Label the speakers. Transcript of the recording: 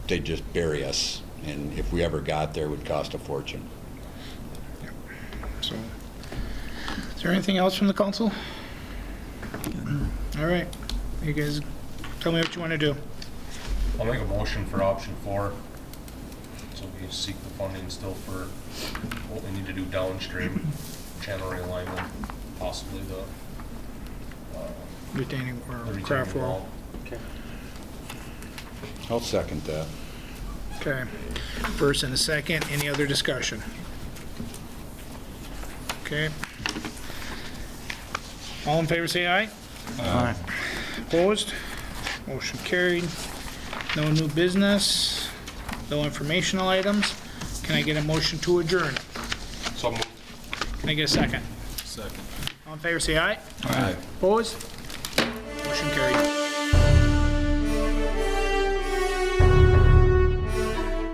Speaker 1: they'd just bury us. And if we ever got there, it would cost a fortune.
Speaker 2: So, is there anything else from the council? All right, you guys, tell me what you want to do.
Speaker 3: I'll make a motion for option four. So we seek the funding still for what we need to do downstream, channel realignment, possibly the
Speaker 2: Retaining
Speaker 3: the
Speaker 2: or craft
Speaker 3: retaining
Speaker 2: wall.
Speaker 3: wall.
Speaker 1: I'll second that.
Speaker 2: Okay. First and a second, any other discussion? Okay. All in favor, say aye.
Speaker 4: Aye.
Speaker 2: Opposed? Motion carried. No new business, no informational items. Can I get a motion to adjourn?
Speaker 3: So moved.
Speaker 2: Can I get a second? Second. All in favor, say aye. Aye. Opposed? Motion carried.